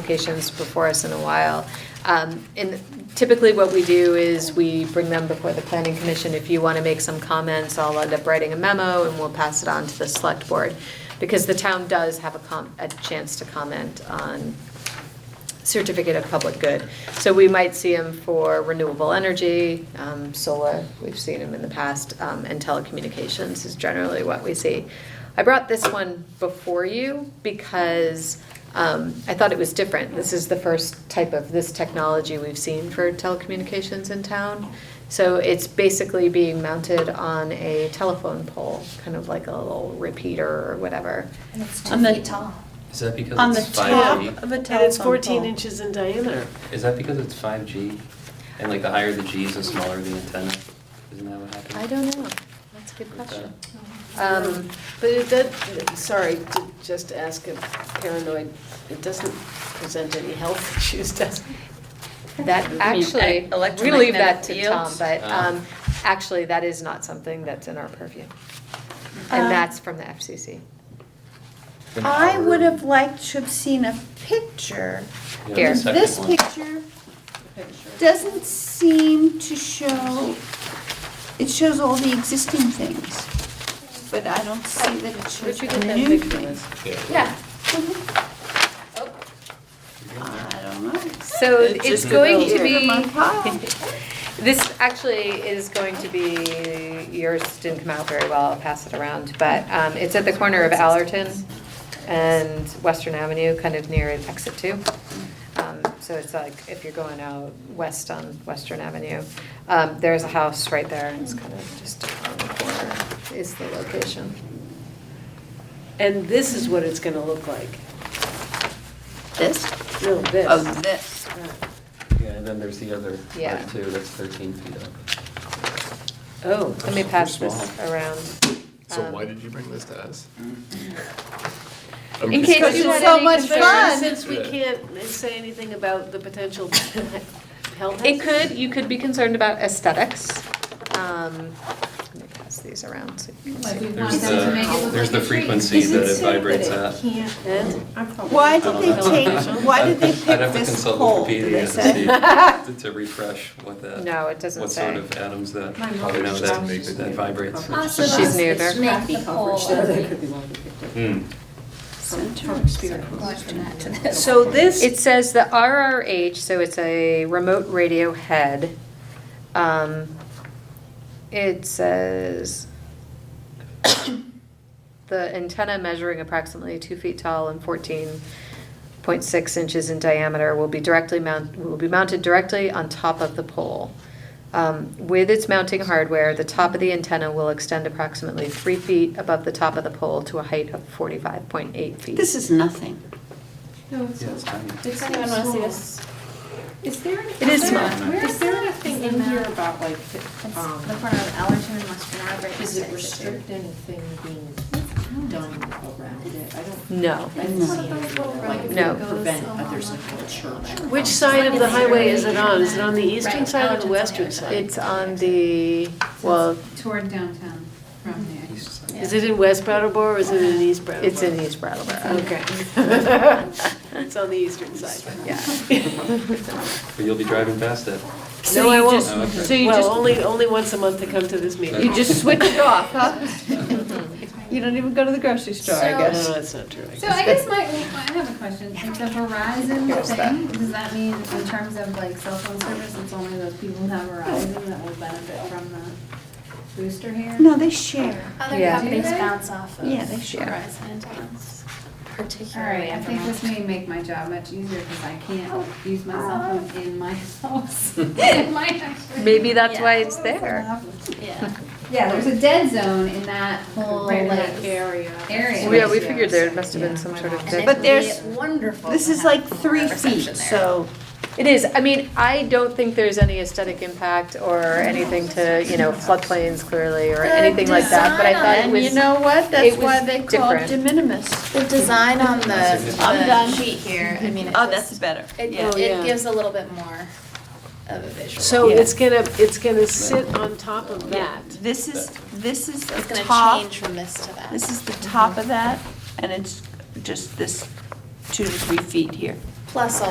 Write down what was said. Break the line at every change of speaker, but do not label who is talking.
applications before us in a while. Um, And typically what we do is we bring them before the planning commission. If you want to make some comments, I'll end up writing a memo and we'll pass it on to the select board. Because the town does have a com, a chance to comment on certificate of public good. So we might see them for renewable energy, um, solar, we've seen them in the past, um, and telecommunications is generally what we see. I brought this one before you because um, I thought it was different. This is the first type of this technology we've seen for telecommunications in town. So it's basically being mounted on a telephone pole, kind of like a little repeater or whatever.
And it's
On the-
two feet tall.
Is that because
On the
it's five
top
G?
of a telephone
And it's 14
pole.
inches in diameter.
Is that because it's five G? And like the higher the G's, the smaller the antenna? Isn't that what happened?
I don't know. That's a good question. Um,
But it does, sorry, to just ask a paranoid, it doesn't present any health issues, does it?
That
I mean,
actually,
e-
we're gonna leave that
electromagnetic
to Tom,
fields?
but
Ah.
um, actually, that is not something that's in our purview. And
Um,
that's from the FCC.
I
An hour.
would have liked to have seen a picture.
Yeah,
Here.
the second
This
one.
picture doesn't seem to show, it shows all the existing things, but I don't see that it shows
Where'd you
the
get that
new
picture, Liz?
things.
Yeah,
Oh. I don't know.
so
It's
it's
just a
going
little
to
Here, my
be,
pile.
this actually is going to be, yours didn't come out very well, I'll pass it around, but um, it's at the corner of Allerton and Western Avenue, kind of near exit two. Um, So it's like, if you're going out west on Western Avenue, um, there's a house right there, it's kind of just on the corner is the location.
And this is what it's going to look like.
This?
No, this. Uh,
Oh, this.
Yeah, and then there's the other
Yeah.
part too, that's thirteen feet up.
Oh.
Let me pass this around.
So
Um,
why did you bring this to us?
In case you had
So
any
much
concerns.
fun.
Since we
Yeah.
can't say anything about the potential health.
It could, you could be concerned about aesthetics. Um, Let me pass these around so you can see.
There's the, there's the frequency that it vibrates at.
And
Why
I
did
don't
they
know.
take, why did they
I'd- I'd
pick
have to
this
consult
pole?
Wikipedia
They
to
said-
see- To refresh what that.
No, it doesn't
What
say.
sort of atoms that,
My mom
probably know
just
that,
makes it
that
make
vibrates.
coffee. Awesome.
She's new there.
Make the pole ugly.
Hmm.
so this.
It says the RRH, so it's a remote radio head. Um, It says the antenna measuring approximately two feet tall and fourteen point six inches in diameter will be directly mount, will be mounted directly on top of the pole. Um, With its mounting hardware, the top of the antenna will extend approximately three feet above the top of the pole to a height of forty-five point eight feet.
This is nothing.
No, it's
Yeah, it's
not.
tiny.
It's
Does anyone
so
want to see
small.
this?
Is there,
It is
is there,
small.
where is there a thing in here about like,
It's
um,
the corner of Allerton and Western Ave.
does it restrict anything being done around it? I don't,
No.
I didn't see anything, like if
No.
you prevent others like a church. or
Which
something.
side of the highway is it on? Is it on the eastern
Right,
side or the
Allerton's on the
western
other side.
side?
It's on the, well,
Toward downtown from there.
East side.
Is it in West Brattleboro or is it in East Brattleboro?
it's in East Brattleboro,
Okay. It's on the eastern side.
yeah.
But you'll be driving past it.
So I won't,
Oh, okay.
so you
Well,
just,
only, only once a month to come to this meeting.
You just switch it off, huh? You don't even go to the grocery store, I
So-
guess.
No, that's not true. I
So
guess.
I guess my, I have a question. If the Verizon thing, does that mean in terms of like cell phone service, it's only those people who have Verizon that will benefit from the booster here?
No, they share.
Other
Yeah.
companies
Do they?
bounce off of.
Yeah, they should.
Verizon antennas,
All
particularly.
right, I think this may make my job much easier because I can't use my cell phone in my house. In my house.
maybe that's why it's
It's
there.
not happening.
Yeah.
Yeah, there's a dead zone in that whole
Right in
like
that area.
area.
Yeah, we figured there must have been
Yeah.
some sort of.
And
dead
it
But
zone.
would be
there's-
Wonderful.
This
to
is
have
like
more
three
reception
feet,
there.
so
It is, I mean, I don't think there's any aesthetic impact or anything to, you know, floodplains clearly or anything like that, but I
design
thought it
on-
And
was.
you know what?
it
That's
was
why they called
different.
de minimis.
The design on the,
I'm
the
done.
sheet here, I mean, it
Oh,
just-
that's better.
It,
Yeah.
yeah.
it gives a little bit more of a visual.
So
Yeah.
it's gonna, it's gonna sit on top of that.
This is, this is
It's
the
gonna
top,
change from this to that.
this is the top of that, and it's just this two to three feet here.
Plus also